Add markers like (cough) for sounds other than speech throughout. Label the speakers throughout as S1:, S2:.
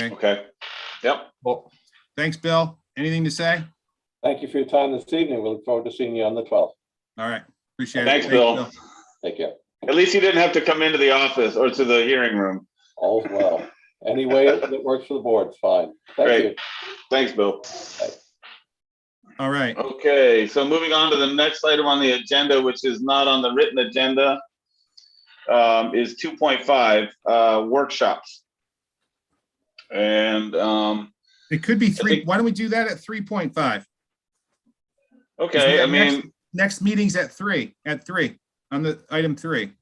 S1: Okay, yep,
S2: Well,
S3: Thanks, Bill. Anything to say?
S4: Thank you for your time this evening. We look forward to seeing you on the twelfth.
S3: All right, appreciate it.
S1: Thanks, Bill.
S4: Take care.
S1: at least you didn't have to come into the office or to the hearing room.
S4: All's well. Any way that works for the board's fine. Thank
S1: Great.
S4: you.
S1: Thanks, Bill.
S3: All right,
S1: Uh, Okay, so moving on to the next item on the agenda, which is not on the written agenda, um, is two point five, uh, workshops. And, um,
S3: it could be three.
S1: think-
S3: Why don't we do that at three point five?
S1: okay, I mean,
S3: Next meeting's at three, at three, on the item three.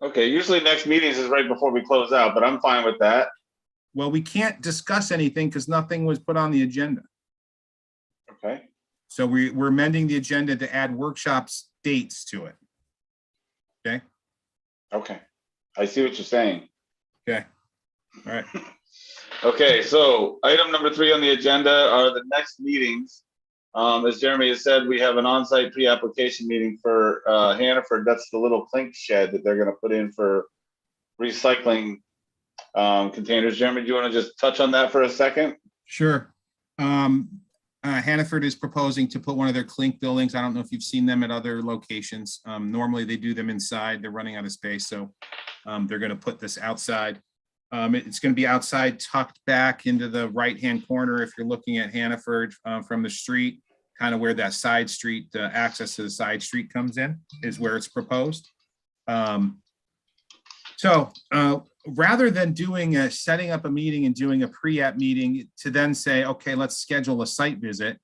S1: okay, usually next meetings is right before we close out, but I'm fine with that.
S3: Well, we can't discuss anything because nothing was put on the agenda.
S1: Okay,
S3: So we, we're amending the agenda to add workshops dates to it.
S1: okay. I see what you're saying.
S3: Okay. All right.
S1: (laughs) Okay, so item number three on the agenda are the next meetings. Um, as Jeremy has said, we have an on-site pre-application meeting for, uh, Hannaford. That's the little clink shed that they're gonna put in for recycling, um, containers. Jeremy, do you wanna just touch on that for a second?
S3: Sure. Um, uh, Hannaford is proposing to put one of their clink buildings. I don't know if you've seen them at other locations. Um, normally they do them inside. They're running out of space, so um, they're gonna put this outside. Um, it- it's gonna be outside tucked back into the right-hand corner if you're looking at Hannaford, uh, from the street, kind of where that side street, the access to the side street comes in, is where it's proposed. Um, so, uh, rather than doing a, setting up a meeting and doing a pre-app meeting to then say, okay, let's schedule a site visit.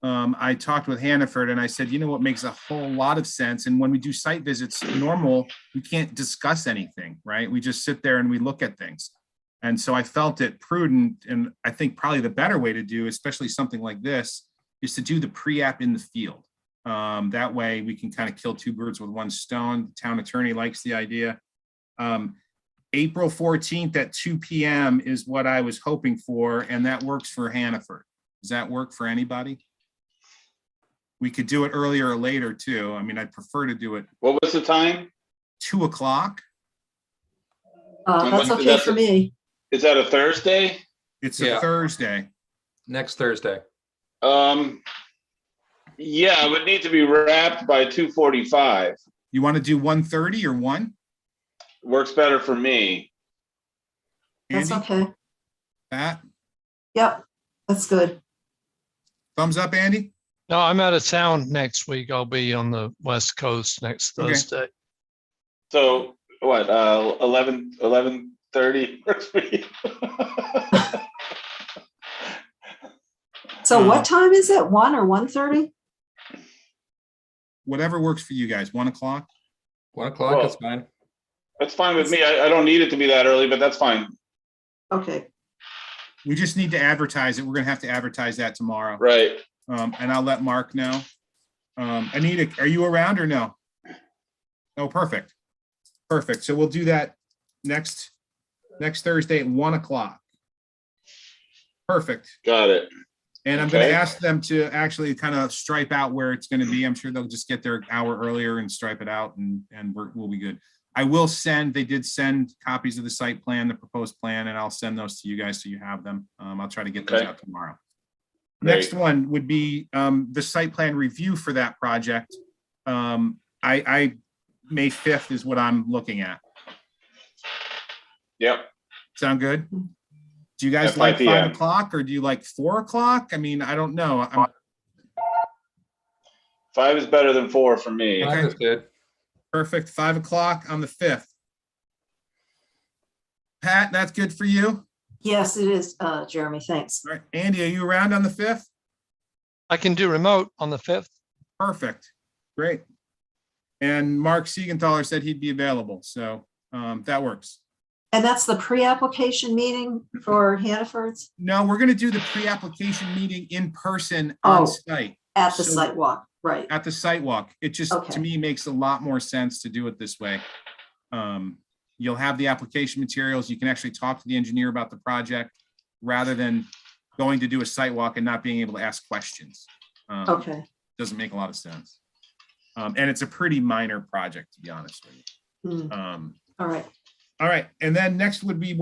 S3: Um, I talked with Hannaford and I said, you know what makes a whole lot of sense? And when we do site visits, normal, we can't discuss anything, right? We just sit there and we look at things. And so I felt it prudent, and I think probably the better way to do, especially something like this, is to do the pre-app in the field. Um, that way we can kind of kill two birds with one stone. Town attorney likes the idea. Um, April fourteenth at two PM is what I was hoping for, and that works for Hannaford. Does that work for anybody? We could do it earlier or later too. I mean, I'd prefer to do it
S1: What was the time?
S3: two o'clock.
S1: And
S5: Uh, that's
S1: when-
S5: okay
S1: that's
S5: for
S1: it.
S5: me.
S1: Is that a Thursday?
S3: It's a
S2: Yeah.
S3: Thursday.
S2: next Thursday.
S1: Um, yeah, it would need to be wrapped by two forty-five.
S3: You want to do one thirty or one?
S1: Works better for me.
S5: That's
S3: Andy,
S5: okay.
S3: Pat,
S5: Yep, that's good.
S3: thumbs up, Andy?
S6: No, I'm out of town next week. I'll be on the west coast next
S3: Okay.
S6: Thursday.
S1: So what, uh, eleven, eleven thirty (laughs) works for you?
S5: So
S3: Uh,
S5: what time is it? One or one thirty?
S3: Whatever works for you guys. One o'clock?
S2: One o'clock, that's fine.
S1: That's fine with me. I, I don't need it to be that early, but that's fine.
S5: Okay,
S3: We just need to advertise it. We're gonna have to advertise that tomorrow.
S1: Right.
S3: Um, and I'll let Mark know. Um, Anita, are you around or no? Oh, perfect. Perfect. So we'll do that next, next Thursday at one o'clock. Perfect.
S1: Got it.
S3: And I'm gonna
S1: Okay.
S3: ask them to actually kind of stripe out where it's gonna be. I'm sure they'll just get there an hour earlier and stripe it out and, and we're, we'll be good. I will send, they did send copies of the site plan, the proposed plan, and I'll send those to you guys so you have them. Um, I'll try to get those
S1: Okay.
S3: out tomorrow.
S1: Great.
S3: Next one would be um, the site plan review for that project. Um, I, I, May fifth is what I'm looking at.
S1: Yep.
S3: Sound good? Do you
S1: At
S3: guys
S1: 5
S3: like
S1: PM.
S3: five o'clock or do you like four o'clock? I mean, I don't know. I'm-
S1: Five is better than four for me.
S3: Okay.
S2: Five is good.
S3: Perfect. Five o'clock on the fifth. Pat, that's good for you. All
S5: yes, it is, uh, Jeremy, thanks.
S3: right. Andy, are you around on the fifth?
S6: I can do remote on the fifth.
S3: Perfect. Great. And Mark Siegenthaler said he'd be available, so um, that works.
S5: And that's the pre-application meeting for Hannaford's
S3: No, we're gonna do the pre-application meeting in person on
S5: Oh.
S3: site,
S5: at the
S3: So-
S5: site walk, right?
S3: at the site walk. It just, to
S5: Okay.
S3: me, makes a lot more sense to do it this way. Um, You'll have the application materials. You can actually talk to the engineer about the project rather than going to do a site walk and not being able to ask questions. Um,
S5: Okay,
S3: Doesn't make a lot of sense. Um, And it's a pretty minor project, to be honest with you.
S5: Hmm,
S3: Um,
S5: all right.
S3: All right, and then next would be